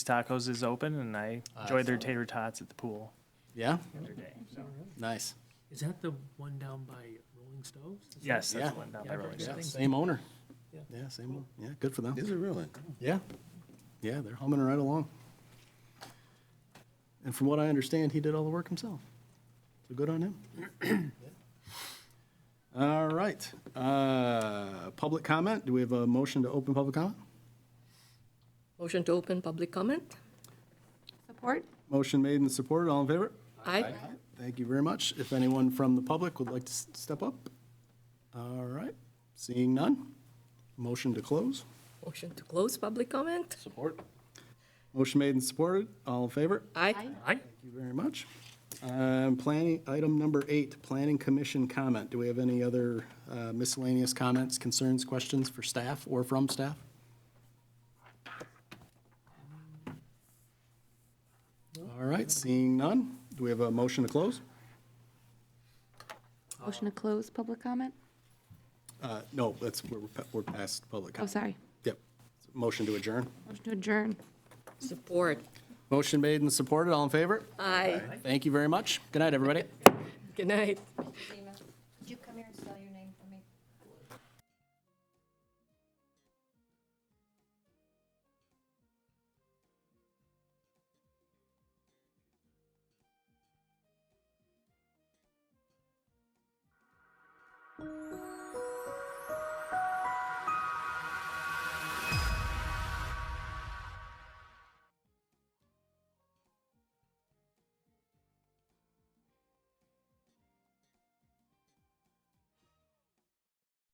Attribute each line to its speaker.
Speaker 1: Tacos is open, and I
Speaker 2: I
Speaker 1: enjoyed their
Speaker 2: saw that.
Speaker 1: tater tots at the pool
Speaker 2: Ah, Yeah,
Speaker 1: the other day. So
Speaker 2: nice.
Speaker 3: Is that the one down by Rolling Stoves? Is that-
Speaker 1: yes, that's
Speaker 2: Yeah.
Speaker 1: the one down
Speaker 3: Yeah,
Speaker 1: by
Speaker 3: I've
Speaker 1: Rolling
Speaker 3: heard
Speaker 2: Yeah,
Speaker 1: Stone.
Speaker 3: good
Speaker 2: same owner.
Speaker 3: Yeah.
Speaker 2: Yeah, same one. Yeah, good for them.
Speaker 4: Is it really?
Speaker 2: Yeah, yeah, they're humming right along. And from what I understand, he did all the work himself. So good on him. All right, uh, public comment. Do we have a motion to open public comment?
Speaker 5: Motion to open public comment?
Speaker 6: Support?
Speaker 2: Motion made and supported. All in favor?
Speaker 5: Aye.
Speaker 2: Thank you very much. If anyone from the public would like to s- step up? All right, seeing none. Motion to close.
Speaker 5: Motion to close public comment?
Speaker 2: Support. Motion made and supported. All in favor?
Speaker 5: Aye.
Speaker 3: Aye.
Speaker 2: Thank you very much. Um, Planning, item number eight, Planning Commission comment. Do we have any other uh, miscellaneous comments, concerns, questions for staff or from staff? All right, seeing none, do we have a motion to close?
Speaker 6: Motion to close public comment?
Speaker 2: Uh, No, that's, we're we're past public
Speaker 6: Oh,
Speaker 2: comment.
Speaker 6: sorry.
Speaker 2: Yep. Motion to adjourn.
Speaker 6: Motion to adjourn.
Speaker 5: Support?
Speaker 2: Motion made and supported, all in favor?
Speaker 5: Aye.
Speaker 2: Thank you very much. Good night, everybody.
Speaker 5: Good night.
Speaker 7: Dina, could you come here and spell your name for me?